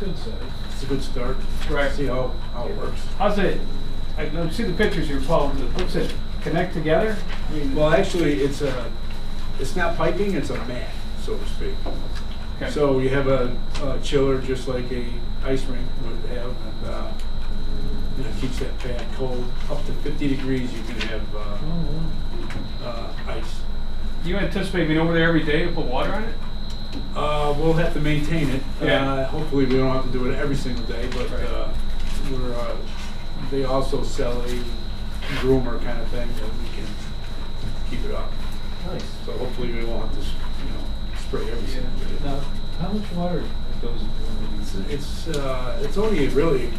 good, so it's a good start. Right. See how, how it works. How's it, I don't see the pictures you're following, but what's it, connect together? I mean, Well, actually, it's a, it's not piping, it's a mat, so to speak. okay. So you have a, a chiller just like a ice rink would have, and, uh, you know, keeps that pad cold. Up to fifty degrees, you can have, uh, uh, ice. Do you anticipate being over there every day to put water on it? Uh, we'll have to maintain it. Yeah. Uh, hopefully, we don't have to do it every single day, but Right. uh, we're. Uh, they also sell a groomer kind of thing that we can keep it up. Nice. So hopefully, we won't have to, s- you know, spray every single day. Now, how much water goes into one of these? It's uh, it's only really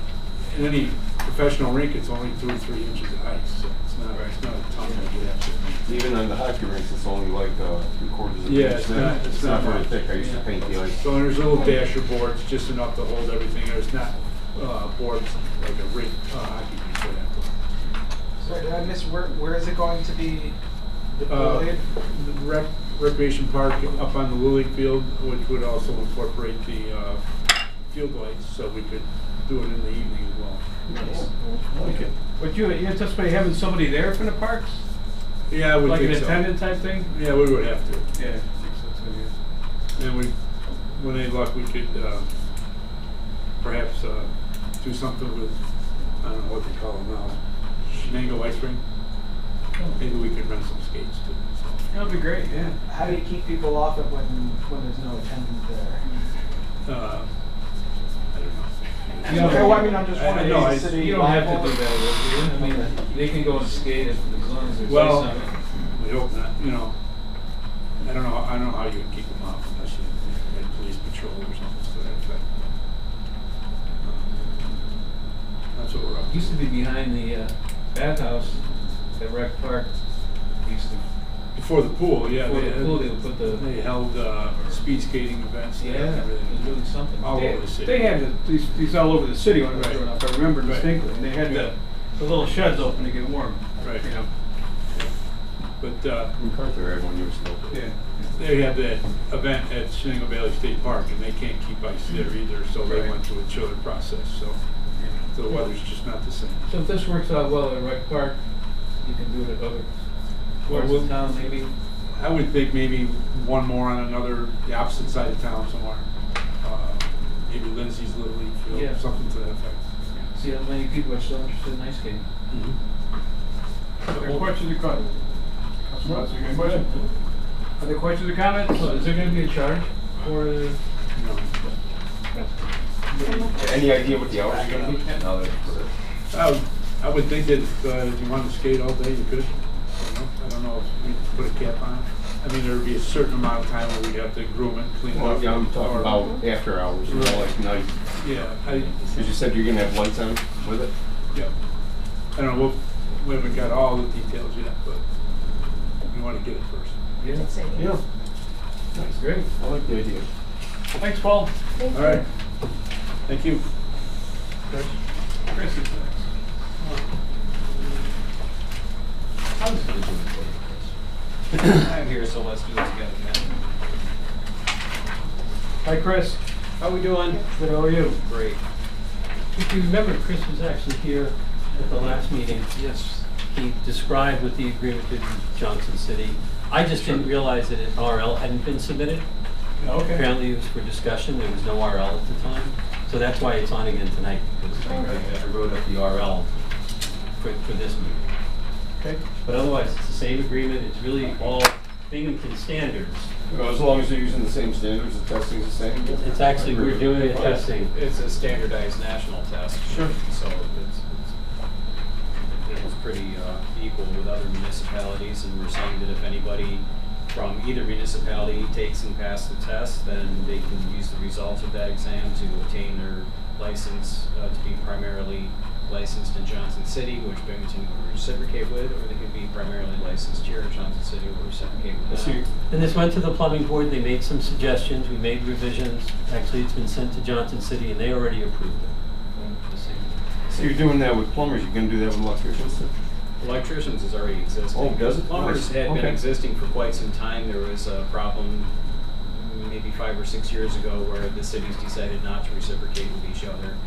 in any professional rink. It's only two or three inches of ice, so it's not it's not a ton that we have to. Even on the hockey rinks, it's only like uh, three quarters of an Yeah, inch it's thick. not- it's not very much. thick. I used to Yeah. paint the ice. So there's little dasher boards, just enough to hold everything. There's not uh, boards like a rink uh, hockey rink would have. Sorry, did I miss where, where is it going to be Uh, deployed? the rec- Recreation Park up on the Lily Field, which would also incorporate the uh, field lights, so we could do it in the evening as well. Okay. Would you you anticipate having somebody there from the parks? Yeah, we Like an think so. attendant type thing? Yeah, we would have to. Yeah. I think so too, yeah. And we, when they luck, we could uh, perhaps uh, do something with, I don't know what they call them now, Shenango Ice Rink. Maybe we could rent some skates too. so. That'd be great, yeah. How do you keep people off it when, when there's no attendant there? Uh, I don't know. You don't- Okay, well, I mean, I'm just I- I wondering, know, is the I- city You don't have to liable? do that, I mean, they can go and skate as long as there's ice Well, on it. we hope not, you know. I don't know, I don't know how you would keep them off unless you had police patrol or something to that effect. Um, That's what we're up to. Used to be behind the uh, bathhouse at Rec Park. Used to, Before the pool, yeah. Before the had- pool, they would put the- They held, uh, speed skating events and yeah, they're doing everything. something. All They- over the city. They had the- these, these all over the city when I was Right. growing up, I remember Right. distinctly, and they had Yeah. the, the little sheds open to get warm. Right. You know, But, uh, MacArthur had one year still. yeah. they had that event at Shenango Valley State Park and they can't keep ice there either, so they Mm-hmm. Right. went through a chiller process, so. The weather's just not the same. So if this works out well at Rec Park, you can do it at other Well, parts we'll- of town, maybe? I would think maybe one more on another, the opposite side of town somewhere. Uh, Maybe Lindsay's Little League Yeah. Field, something to that effect. See how many people are still interested in ice skating. Are there questions or comments? Councilman Watts, you got a question? Are there questions or comments? So is there gonna be a charge for, the- No. Any idea what the hours are going to be? No, I would, I would think that uh, if you wanted to skate all day, you could. You know, I don't know if we put a cap on it. I mean, there'd be a certain amount of time where we'd have to groom it, clean it up. well, yeah, I'm talking or- about after hours, you know, like night. Yeah, I, Because you said you're going to have lights on with it. yeah. I don't know, we'll- we haven't got all the details yet, but we want to get it first. yeah, Yeah, that's great. I like the idea. Thanks, Paul. All right. Thank you. Chris is next. I'm here, so let's do this again. Hi, Chris. How we doing? Good, how are you? Great. If you remember, Chris was actually here at the last meeting. Yes. He described what the agreement did with Johnson City. I just didn't realize that an RL hadn't been submitted. Okay. Apparently it was for discussion, there was no RL at the time, so that's why it's on again tonight, because I I wrote up the RL for, for this meeting. Okay. But otherwise, it's the same agreement, it's really all Binghamton standards. Well, as long as you're using the same standards, the testing's the same. yeah. It's actually, we're doing a testing. It's a standardized national test. Sure. So it's, it's, it was pretty, uh, equal with other municipalities, and we're saying that if anybody from either municipality takes and passes the test, then they can use the results of that exam to obtain their license, uh, to be primarily licensed in Johnson City, which Binghamton would reciprocate with, or they can be primarily licensed here in Johnson City, or reciprocate with So that. you're- And this went to the plumbing board, they made some suggestions, we made revisions. Actually, it's been sent to Johnson City and they already approved it. The same. So you're doing that with plumbers, you're going to do that with electricians? Electricians is already existing. Oh, does it? Plumbers Nice. had been Okay. existing for quite some time. There was a problem maybe five or six years ago where the cities decided not to reciprocate with each other.